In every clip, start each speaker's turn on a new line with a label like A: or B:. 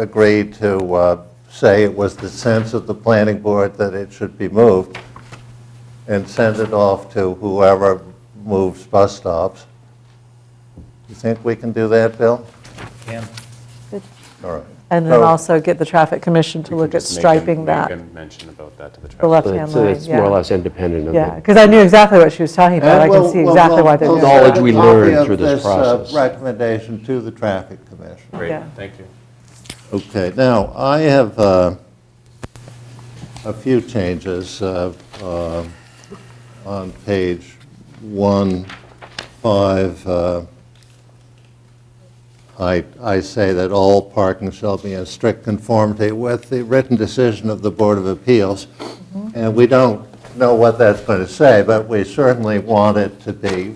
A: agreed to uh, say it was the sense of the planning board that it should be moved and send it off to whoever moves bus stops. You think we can do that, Bill?
B: Can.
A: All right.
C: And then
A: So-
C: also get the traffic commission to look at striping that,
D: mention about that to the
C: the
D: traffic.
C: left-hand
E: It's
C: lane, yeah.
E: it's more or less independent of
C: Yeah,
E: the,
C: because I knew exactly what she was talking about. I can see exactly why they're
A: are
C: doing
E: we'll-
C: that.
E: Knowledge we learned through this process.
A: uh, Recommendation to the traffic commission.
D: Great,
C: Yeah.
D: thank you.
A: Okay, now, I have uh, a few changes uh, uh, on page one, five. uh, I I say that all parking shall be in strict conformity with the written decision of the Board of Appeals, and we don't know what that's going to say, but we certainly want it to be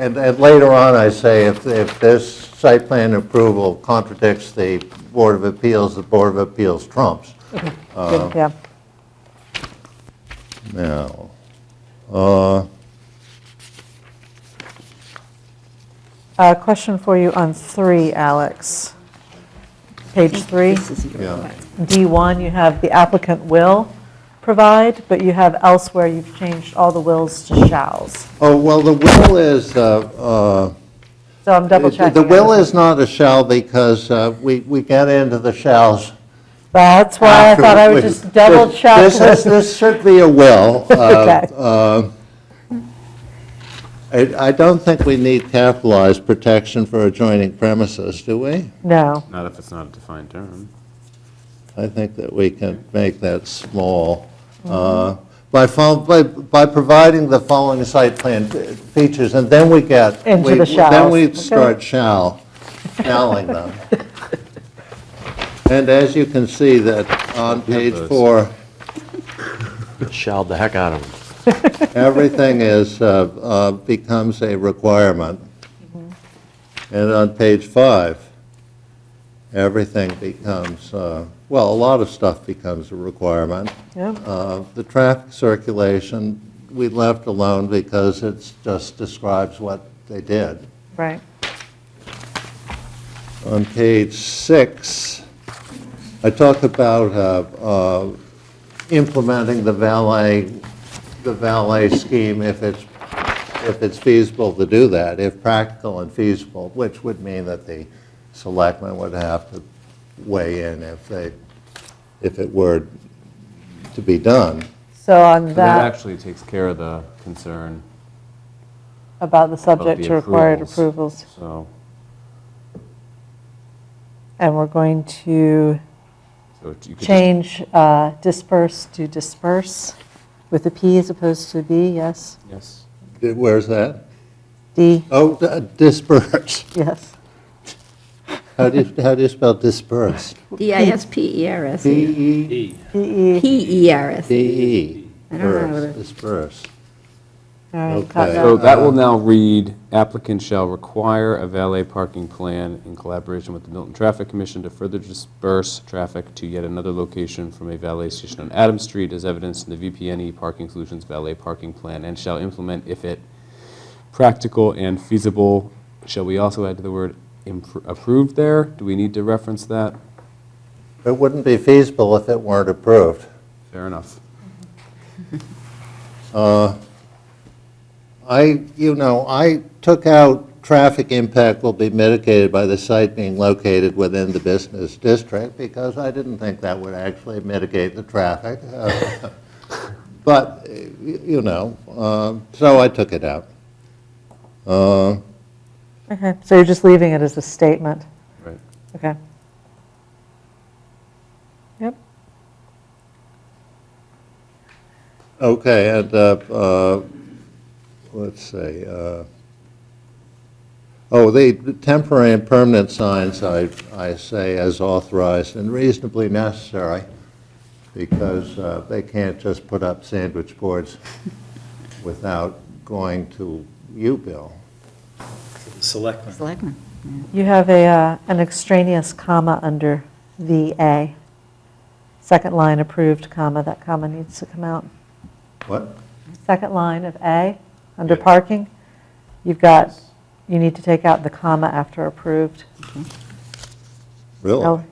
A: and, and later on, I say, if, if this site plan approval contradicts the Board of Appeals, the Board of Appeals trumps.
C: Good, Yeah,
A: Now, uh,
C: Uh, question for you on three, Alex. Page three,
A: yeah,
C: D1, you have the applicant will provide, but you have elsewhere, you've changed all the wills to shalls.
A: oh, well, the will is, uh, uh,
C: So I'm double
A: the
C: checking.
A: the will is not a shall because uh, we, we get into the shalls.
C: That's why I thought I would
A: afterwards.
C: just double check.
A: This is,
C: with-
A: this should be a will. uh,
C: Okay.
A: uh, I, I don't think we need capitalized protection for adjoining premises, do we?
C: No,
D: Not if it's not a defined term.
A: I think that we can make that small. uh, By, fol- by, by providing the following site plan fe- features, and then we get. we-
C: Into the
A: Then
C: shalls,
A: we
C: okay.
A: start shall, shalling them. And as you can see that on page
D: those.
A: four,
E: shelled the heck out of them.
A: everything is, uh, uh, becomes a requirement. And on page five, everything becomes, uh, well, a lot of stuff becomes a requirement.
C: yeah,
A: Uh, The traffic circulation, we left alone because it just describes what they did.
C: right.
A: On page six, I talk about uh, uh, implementing the valet, the valet scheme if it's, if it's feasible to do that, if practical and feasible, which would mean that the selectmen would have to weigh in if they, if it were to be done.
C: So on
D: That
C: that,
D: actually takes care of the concern
C: about the
D: of the
C: subject to required
D: approvals.
C: approvals.
D: So,
C: And we're going to
D: so you could just
C: change uh, disperse to disperse with a P as opposed to a B, yes?
D: Yes.
A: Where's that?
C: D,
A: Oh, d- disperse.
C: yes.
A: How do you, how do you spell disperse?
F: D-I-S-P-E-R-S,
A: D-E?
C: E, E.
F: P-E-R-S.
A: D-E.
F: I don't know how to-
A: E. Disperse.
C: All right,
A: Okay.
C: got that.
D: So that will now read, applicant shall require a valet parking plan in collaboration with the Milton Traffic Commission to further disperse traffic to yet another location from a valet station on Adams Street as evidenced in the VPNE E Parking Solutions Valet Parking Plan and shall implement if it practical and feasible. Shall we also add to the word impr- approved there? Do we need to reference that?
A: It wouldn't be feasible if it weren't approved.
D: Fair enough.
A: I, you know, I took out traffic impact will be mitigated by the site being located within the business district because I didn't think that would actually mitigate the traffic. Uh, But, y- you know, um, so I took it out. Uh,
C: Okay, So you're just leaving it as a statement,
D: Right.
C: okay? Yep,
A: Okay, and, uh, uh, let's see, uh, oh, the temporary and permanent signs, I, I say as authorized and reasonably necessary, because uh, they can't just put up sandwich boards without going to you, Bill.
B: Selectmen.
F: Selectmen.
C: you have a, uh, an extraneous comma under VA. Second line approved comma, that comma needs to come out.
A: What?
C: Second line of A, under
A: Yeah.
C: parking, you've got, you need to take out the comma after approved.
A: Really?
C: Oh,